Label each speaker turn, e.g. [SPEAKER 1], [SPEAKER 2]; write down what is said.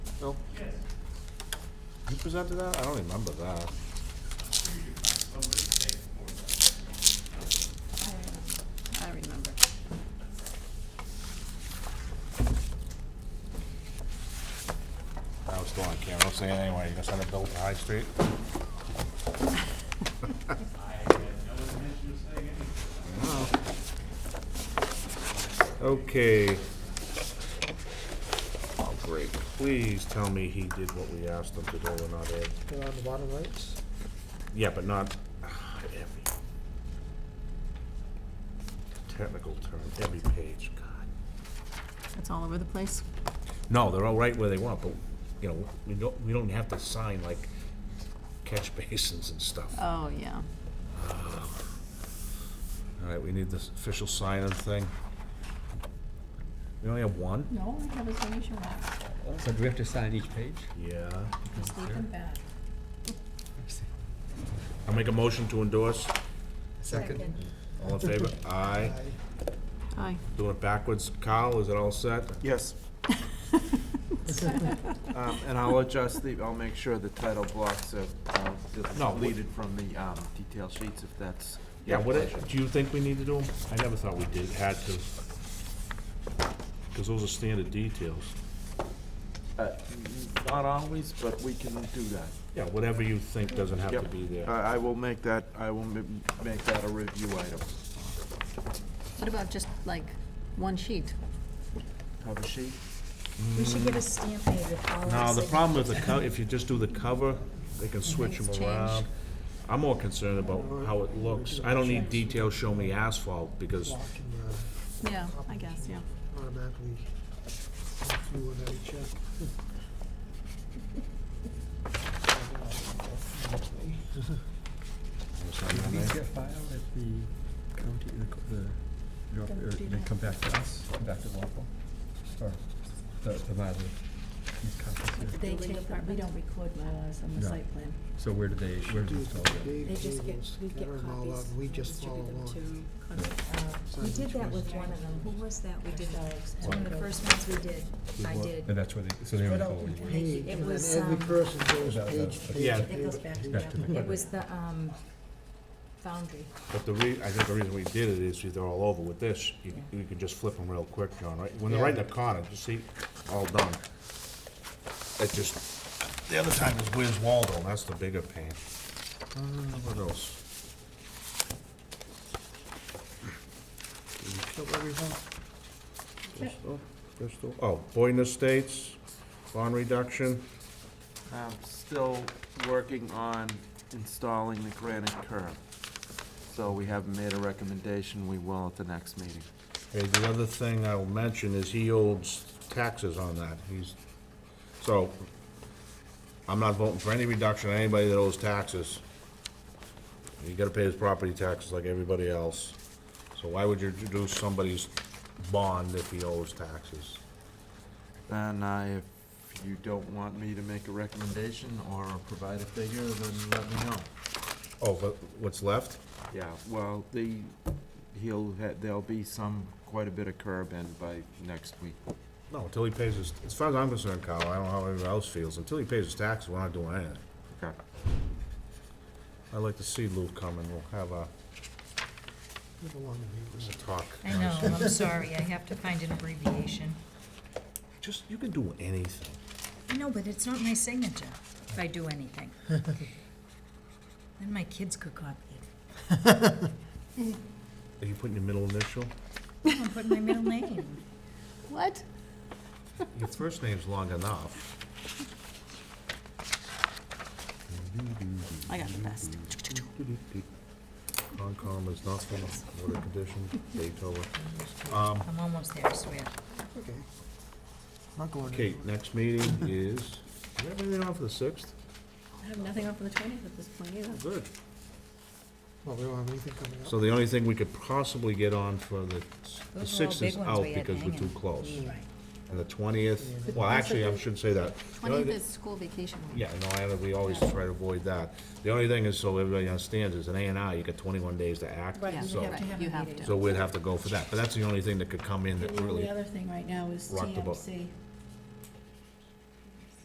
[SPEAKER 1] Bill? Yes. You presented that? I don't remember that.
[SPEAKER 2] I remember.
[SPEAKER 1] I was still on camera, I'll say it anyway, you gonna send a bill to High Street? Okay. Oh, great, please tell me he did what we asked him to do and not Ed.
[SPEAKER 3] They're on the bottom rights.
[SPEAKER 1] Yeah, but not, ah, every. Technical term, every page, God.
[SPEAKER 2] It's all over the place.
[SPEAKER 1] No, they're all right where they want, but, you know, we don't, we don't have to sign like catch basins and stuff. All
[SPEAKER 2] Oh, yeah.
[SPEAKER 1] right, we need this official sign-in thing. We only have one?
[SPEAKER 2] No, I have a signature left.
[SPEAKER 4] So do we have to sign each page?
[SPEAKER 1] Yeah.
[SPEAKER 2] Just leave them back.
[SPEAKER 1] I'll make a motion to endorse.
[SPEAKER 4] Second.
[SPEAKER 1] All in favor? Aye.
[SPEAKER 2] Aye.
[SPEAKER 1] Doing it backwards. Kyle, is it all set?
[SPEAKER 5] Yes. Um, And I'll adjust the, I'll make sure the title blocks are uh,
[SPEAKER 1] No, we-
[SPEAKER 5] deleted from the um, detail sheets if that's.
[SPEAKER 1] Yeah, what, do you think we need to do them? I never thought we did, had to. Because those are standard details.
[SPEAKER 5] Uh, Not always, but we can do that.
[SPEAKER 1] Yeah, whatever you think doesn't have to
[SPEAKER 5] Yep.
[SPEAKER 1] be there.
[SPEAKER 5] I I will make that, I will m- make that a review item.
[SPEAKER 2] What about just like one sheet?
[SPEAKER 5] Cover sheet?
[SPEAKER 6] We should get a stamp made with all our
[SPEAKER 1] No, the
[SPEAKER 6] signatures.
[SPEAKER 1] problem with the co, if you just do the cover, they can switch
[SPEAKER 2] Things
[SPEAKER 1] them
[SPEAKER 2] change.
[SPEAKER 1] around. I'm more concerned about how it looks. I don't need details show me asphalt, because,
[SPEAKER 3] Block and, uh,
[SPEAKER 2] Yeah, I guess, yeah.
[SPEAKER 3] automatically do one every check.
[SPEAKER 4] Do these get filed at the county, the co- the, York- or they come back to us, come back to Walpole? Or the, the Mylar, these copies here?
[SPEAKER 6] They take, them. we don't record Mylars on the
[SPEAKER 4] No.
[SPEAKER 6] site plan.
[SPEAKER 4] So where do they, where do
[SPEAKER 3] Do
[SPEAKER 4] they
[SPEAKER 3] it
[SPEAKER 4] go?
[SPEAKER 3] for big
[SPEAKER 6] They just get,
[SPEAKER 3] tables,
[SPEAKER 6] we get
[SPEAKER 3] gather 'em all
[SPEAKER 6] copies.
[SPEAKER 3] up, We just follow
[SPEAKER 6] distribute them
[SPEAKER 3] along.
[SPEAKER 6] to contact, uh, We did that with one of them. Who was that? We did, it's one of the first ones we did. I did.
[SPEAKER 4] And that's where they, so they only go
[SPEAKER 3] Page,
[SPEAKER 4] where
[SPEAKER 6] It
[SPEAKER 3] And then
[SPEAKER 6] was,
[SPEAKER 3] every
[SPEAKER 6] um,
[SPEAKER 3] person goes
[SPEAKER 4] That-
[SPEAKER 3] page,
[SPEAKER 4] that-
[SPEAKER 3] page,
[SPEAKER 1] Yeah.
[SPEAKER 3] page.
[SPEAKER 6] It goes back to
[SPEAKER 3] page.
[SPEAKER 4] back to
[SPEAKER 6] them.
[SPEAKER 4] the-
[SPEAKER 6] It was the, um, Foundry.
[SPEAKER 1] but the re, I think the reason we did it is because they're all over with this. You, you can just flip them real quick, John, right? When they're right in the corner, you see, all done. It just, the other time is where's Waldo, and that's the bigger pain. Uh, what else?
[SPEAKER 3] Did we kill everything?
[SPEAKER 1] Bristol, Bristol, oh, Boyden Estates, bond reduction.
[SPEAKER 5] I'm still working on installing the granite curb. So we haven't made a recommendation. We will at the next meeting.
[SPEAKER 1] Okay, the other thing I will mention is he owes taxes on that, he's, so, I'm not voting for any reduction on anybody that owes taxes. You gotta pay his property taxes like everybody else, so why would you reduce somebody's bond if he owes taxes?
[SPEAKER 5] Then I, uh, if you don't want me to make a recommendation or provide a figure, then let me know.
[SPEAKER 1] Oh, but what's left?
[SPEAKER 5] Yeah, well, the, he'll, ha- there'll be some, quite a bit of curb in by next week.
[SPEAKER 1] No, until he pays his, as far as I'm concerned, Kyle, I don't know how everyone else feels, until he pays his taxes, we're not doing anything.
[SPEAKER 5] Okay.
[SPEAKER 1] I'd like to see Lou come and we'll have a,
[SPEAKER 3] We don't want to be
[SPEAKER 1] a
[SPEAKER 3] rude.
[SPEAKER 1] talk.
[SPEAKER 7] I know, I'm sorry, I have to find an abbreviation.
[SPEAKER 1] Just, you can do anything.
[SPEAKER 7] I know, but it's not my signature if I do anything. Then my kids could copy it.
[SPEAKER 1] Are you putting your middle initial?
[SPEAKER 7] I'm putting my middle name.
[SPEAKER 2] What?
[SPEAKER 1] Your first name's long enough.
[SPEAKER 2] I got the best.
[SPEAKER 1] Concom is nothing, water condition, Beethoven.
[SPEAKER 7] I'm almost there, I swear.
[SPEAKER 3] Okay. Not going
[SPEAKER 1] Okay,
[SPEAKER 3] anywhere.
[SPEAKER 1] next meeting is, do you have anything on for the sixth?
[SPEAKER 2] I have nothing on for the twentieth at this point either.
[SPEAKER 1] Good.
[SPEAKER 3] Well, we don't have anything coming up.
[SPEAKER 1] So the only thing we could possibly get on for the, the
[SPEAKER 7] Those were all
[SPEAKER 1] sixth
[SPEAKER 7] big
[SPEAKER 1] is
[SPEAKER 7] ones
[SPEAKER 1] out
[SPEAKER 7] we had
[SPEAKER 1] because we're too
[SPEAKER 7] hanging.
[SPEAKER 1] close.
[SPEAKER 7] Right.
[SPEAKER 1] And the twentieth, well, actually, I shouldn't say that. The only
[SPEAKER 2] Twentieth
[SPEAKER 1] thi-
[SPEAKER 2] is school vacation week.
[SPEAKER 1] Yeah, no, I, we always try to avoid that. The only thing is, so everybody understands, is an A and R, you get twenty-one days to act,
[SPEAKER 6] Right, you
[SPEAKER 1] so.
[SPEAKER 6] have to have
[SPEAKER 2] You
[SPEAKER 6] a
[SPEAKER 2] have
[SPEAKER 6] meeting.
[SPEAKER 2] to.
[SPEAKER 1] So we'd have to go for that, but that's the only thing that could come in that
[SPEAKER 6] And the
[SPEAKER 1] really,
[SPEAKER 6] only other thing right now is
[SPEAKER 1] rocked the boat.
[SPEAKER 6] TMC.